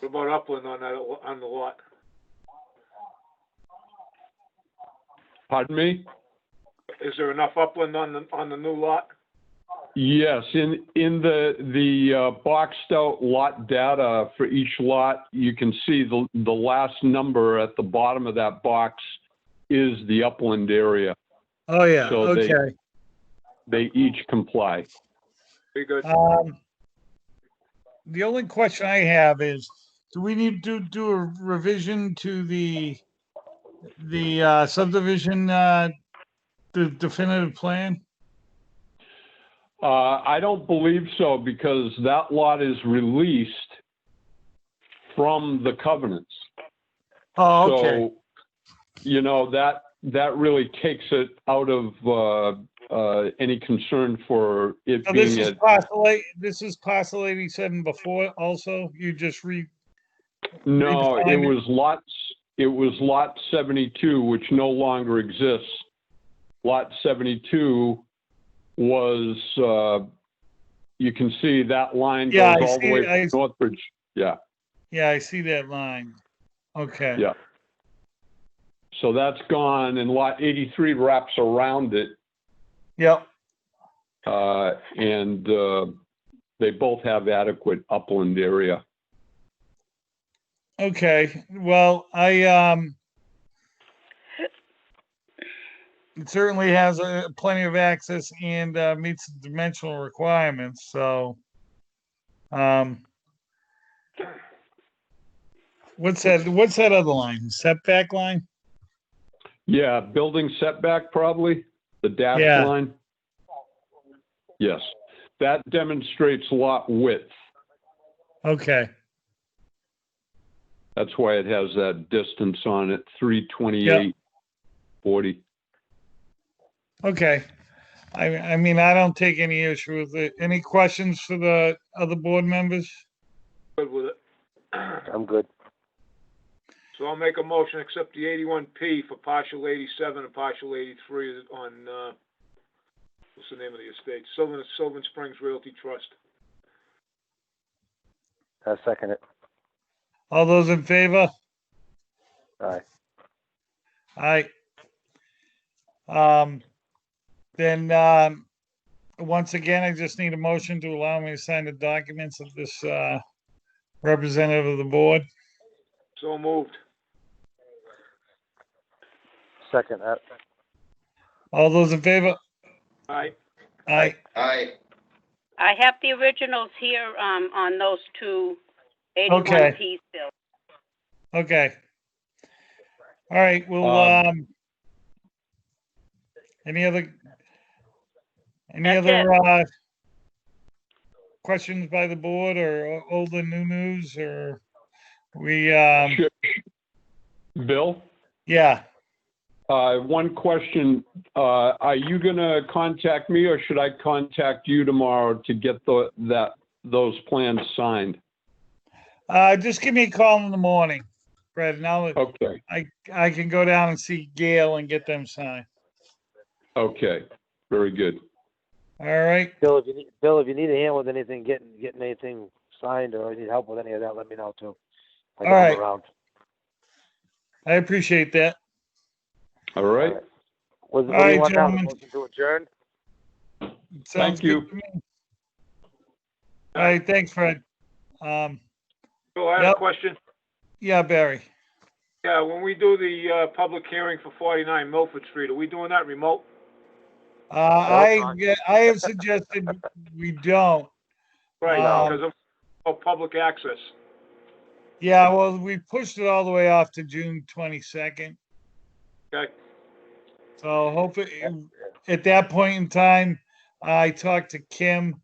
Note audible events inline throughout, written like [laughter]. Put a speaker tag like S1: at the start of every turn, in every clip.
S1: What about upland on that, on the lot?
S2: Pardon me?
S1: Is there enough upland on the, on the new lot?
S2: Yes, in, in the, the uh, boxed out lot data for each lot, you can see the, the last number at the bottom of that box is the upland area.
S3: Oh, yeah,
S2: So they-
S3: okay.
S2: They each comply.
S1: Be good.
S3: Um, The only question I have is, do we need to do a revision to the, the uh, subdivision, uh, the definitive plan?
S2: Uh, I don't believe so because that lot is released from the covenants.
S3: Oh, okay,
S2: So, you know, that, that really takes it out of, uh, uh, any concern for it
S3: so this
S2: being
S3: is
S2: a
S3: parcel eight, this is parcel eighty-seven before also, you just re,
S2: No, it
S3: redefined it?
S2: was lots, it was lot 72, which no longer exists. Lot 72 was, uh, you can see that line
S3: Yeah,
S2: goes
S3: I
S2: all the
S3: see-
S2: way
S3: I-
S2: to Northbridge. Yeah,
S3: yeah, I see that line. Okay.
S2: Yeah. so that's gone and lot 83 wraps around it.
S3: Yep,
S2: uh, And uh, they both have adequate upland area.
S3: okay, well, I, um, it certainly has uh, plenty of access and uh, meets dimensional requirements, so. Um, what's that, what's that other line, setback line?
S2: Yeah, building setback probably, the dash
S3: Yeah.
S2: line. Yes, that demonstrates lot width.
S3: Okay,
S2: That's why it has that distance on it, three twenty-eight forty.
S3: okay. I, I mean, I don't take any issue with it. Any questions for the other board members?
S1: Good with it. [clears throat]
S4: I'm good.
S1: So I'll make a motion, accept the eighty-one P for partial eighty-seven and partial eighty-three on, uh, what's the name of the estate? Sylvan, Sylvan Springs Realty Trust.
S4: I second it.
S3: All those in favor?
S4: All right.
S3: Aye. Um, then, um, once again, I just need a motion to allow me to sign the documents of this, uh, representative of the board.
S1: So moved.
S4: Second, uh,
S3: All those in favor?
S1: Aye.
S3: Aye.
S5: Aye.
S6: I have the originals here, um, on those two
S3: Okay.
S6: eighty-one P bills.
S3: Okay. All right, well,
S2: Um,
S3: um, any other, any
S6: That's
S3: other, uh, questions by the board or old and new news or we, um,
S2: Bill,
S3: yeah,
S2: uh, one question, uh, are you gonna contact me or should I contact you tomorrow to get the, that, those plans signed?
S3: uh, just give me a call in the morning, Brad, and I'll,
S2: Okay,
S3: I, I can go down and see Gail and get them signed.
S2: okay, very good.
S3: All right,
S4: Bill, if you need, Bill, if you need a hand with anything, getting, getting anything signed or need help with any of that, let me know too. I can
S3: All
S4: come
S3: right.
S4: around.
S3: I appreciate that.
S2: All right,
S3: All
S4: Was, what do
S3: right,
S4: you want now? The
S3: gentlemen.
S4: Motion to adjourn?
S3: Sounds
S2: you.
S3: good to me. All right, thanks, Fred. Um,
S1: Bill, I have
S3: Yep.
S1: a question.
S3: yeah, Barry.
S1: Yeah, when we do the, uh, public hearing for forty-nine Milford Street, are we doing that remote?
S3: Uh, I,
S4: fine.
S3: yeah, I have suggested we don't.
S1: Right,
S3: Um,
S1: because of, of public access.
S3: Yeah, well, we pushed it all the way off to June twenty-second.
S1: Okay.
S3: So hopefully, at that point in time, I talked to Kim.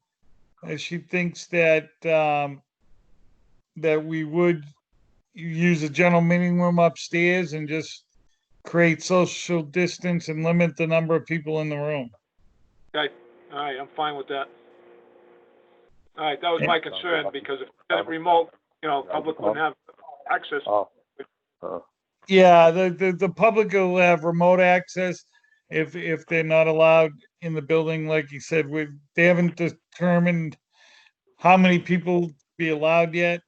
S3: And she thinks that, um, that we would use a general meeting room upstairs and just create social distance and limit the number of people in the room.
S1: All right, I'm fine with that. All right, that was my concern, because if that remote, you know, public wouldn't have access.
S4: Oh. Oh.
S3: Yeah, the, the, the public will have remote access if, if they're not allowed in the building, like you said, we, they haven't determined how many people be allowed yet.